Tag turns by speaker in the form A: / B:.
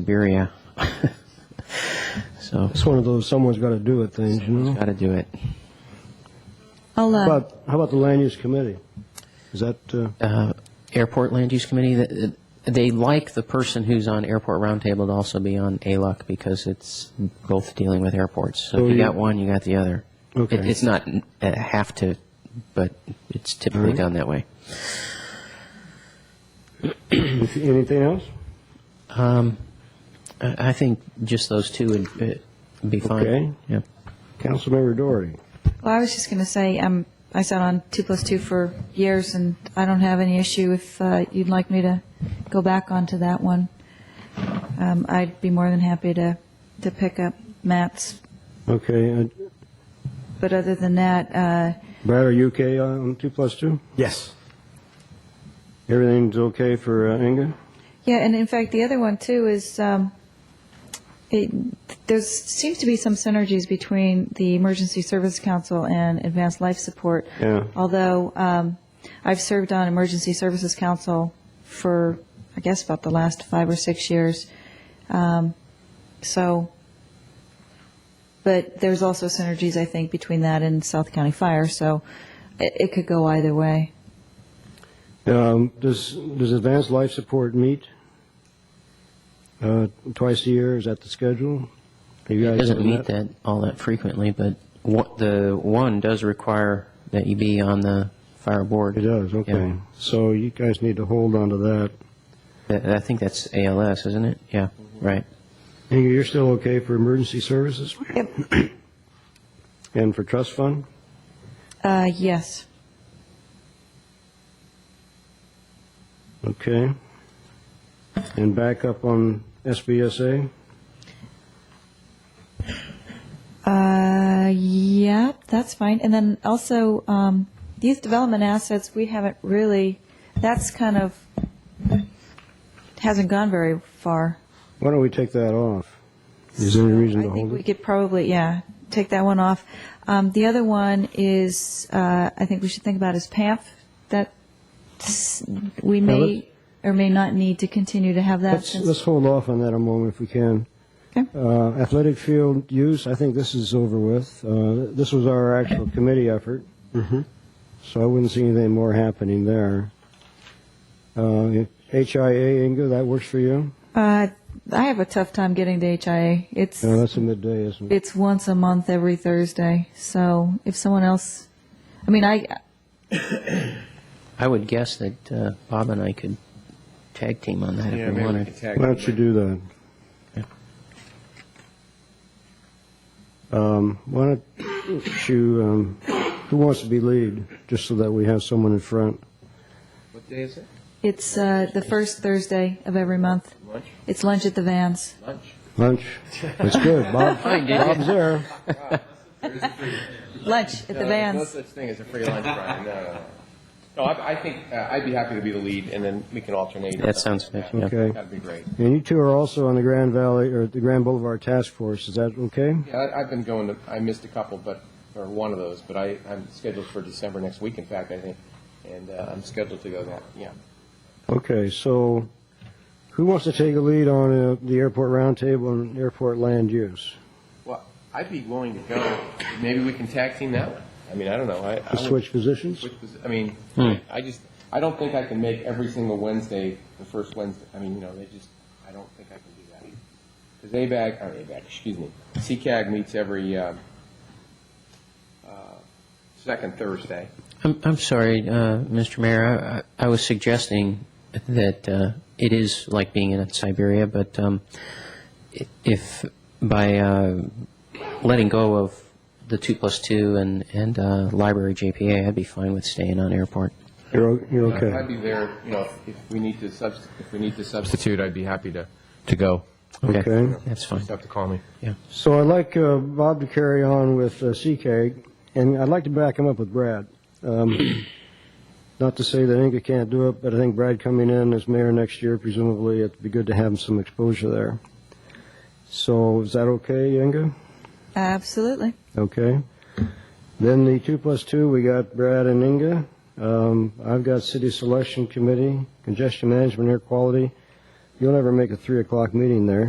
A: Siberia. so,
B: It's one of those someone's got to do it things, you know?
A: got to do it.
C: I'll,
B: How
C: uh,
B: about, how about the land use committee? Is that, uh,
A: Uh, Airport Land Use Committee, th- th- they like the person who's on Airport Roundtable to also be on ALUC because it's both dealing with airports. So
B: So
A: if you
B: you-
A: got one, you got the other.
B: Okay.
A: It- It's not n- a have to, but it's typically
B: Alright.
A: done that way.
B: if- anything else?
A: Um, I I think just those two would uh, be fine.
B: Okay.
A: Yeah.
B: Councilmember Doherty?
C: well, I was just going to say, um, I sat on two plus two for years, and I don't have any issue if uh, you'd like me to go back onto that one. Um, I'd be more than happy to, to pick up Matt's.
B: Okay, uh,
C: But other than that, uh,
B: Brad, are you okay uh, on two plus two?
D: Yes.
B: Everything's okay for uh, Inga?
C: yeah, and in fact, the other one too is um, it, there seems to be some synergies between the Emergency Service Council and Advanced Life Support.
B: Yeah.
C: Although um, I've served on Emergency Services Council for, I guess, about the last five or six years. Um, So, but there's also synergies, I think, between that and South County Fire, so it it could go either way.
B: Um, Does, does Advanced Life Support meet uh, twice a year? Is that the schedule? Are you
A: It
B: guys
A: doesn't
B: on
A: meet that all that frequently, but what, the one does require that you be on the fire board.
B: It does, okay.
A: Yeah.
B: So you guys need to hold on to that.
A: Th- I think that's ALS, isn't it? Yeah,
D: Mm-hmm.
A: right.
B: Inga, you're still okay for emergency services?
C: Yep.
B: And for trust fund?
C: Uh, Yes.
B: Okay. And back up on SBSA?
C: Uh, yeah, that's fine. And then also, um, youth development assets, we haven't really, that's kind of, hasn't gone very far.
B: Why don't we take that off? Is there any reason to
C: I think
B: hold
C: we
B: it?
C: could probably, yeah, take that one off. Um, the other one is, uh, I think we should think about is PAMP. That s- we may or may not need to continue to have that.
B: Let's,
C: since-
B: let's hold off on that a moment if we can.
C: Okay.
B: Uh, Athletic field use, I think this is over with. Uh, This was our actual committee effort. So I wouldn't see anything more happening there. Uh, HIA, Inga, that works for you?
C: Uh, I have a tough time getting to HIA. It's,
B: No, that's a midday, isn't it?
C: it's once a month every Thursday. So if someone else, I mean, I,
A: I would guess that uh, Bob and I could tag team on that
D: Yeah,
A: if we
D: maybe we can
A: wanted.
D: tag
B: Why don't you
D: them.
B: do that? Um, Why don't you, um, who wants to be lead, just so that we have someone in front?
D: What day is it?
C: it's, uh, the first Thursday of every month.
D: Lunch?
C: It's lunch at the Vans.
D: Lunch?
B: Lunch? That's good. Bob, Bob's there.
C: Lunch at the
D: No
C: Vans.
D: such thing as a free lunch, Brian. No, no, no. No, I, I think, uh, I'd be happy to be the lead, and then we can alternate.
A: That sounds fair, yeah.
B: Okay.
D: That'd be great.
B: And you two are also on the Grand Valley, or the Grand Boulevard Task Force. Is that okay?
D: Yeah, I, I've been going to, I missed a couple, but, or one of those, but I, I'm scheduled for December next week, in fact, I think. And, uh, I'm scheduled to go that, yeah.
B: Okay, so who wants to take a lead on uh, the airport roundtable and airport land use?
D: Well, I'd be willing to go. Maybe we can tag team that one. I mean, I don't know. I, I would-
B: Switch positions?
D: Which was, I mean,
A: Hmm.
D: I just, I don't think I can make every single Wednesday the first Wednesday. I mean, you know, they just, I don't think I can do that. Because ABAG, or ABAG, excuse me, CCAG meets every um, uh, second Thursday.
A: I'm, I'm sorry, uh, Mr. Mayor, I, I I was suggesting that uh, it is like being in Siberia, but um, i- if, by uh, letting go of the 2 plus 2 and, and uh, library JPA, I'd be fine with staying on airport.
B: You're, o- you're
D: I'd
B: okay?
D: be there, you know, if we need to subst, if we need to substitute, I'd be happy to, to go.
B: Okay.
A: That's fine.
D: Just have to call me.
B: So I'd like uh, Bob to carry on with uh, CK, and I'd like to back him up with Brad. Um, Not to say that Inga can't do it, but I think Brad coming in as mayor next year, presumably, it'd be good to have some exposure there. So is that okay, Inga?
C: Absolutely.
B: Okay. Then the two plus two, we got Brad and Inga. Um, I've got City Selection Committee, Congestion Management, Air Quality, You'll never make a 3 o'clock meeting there.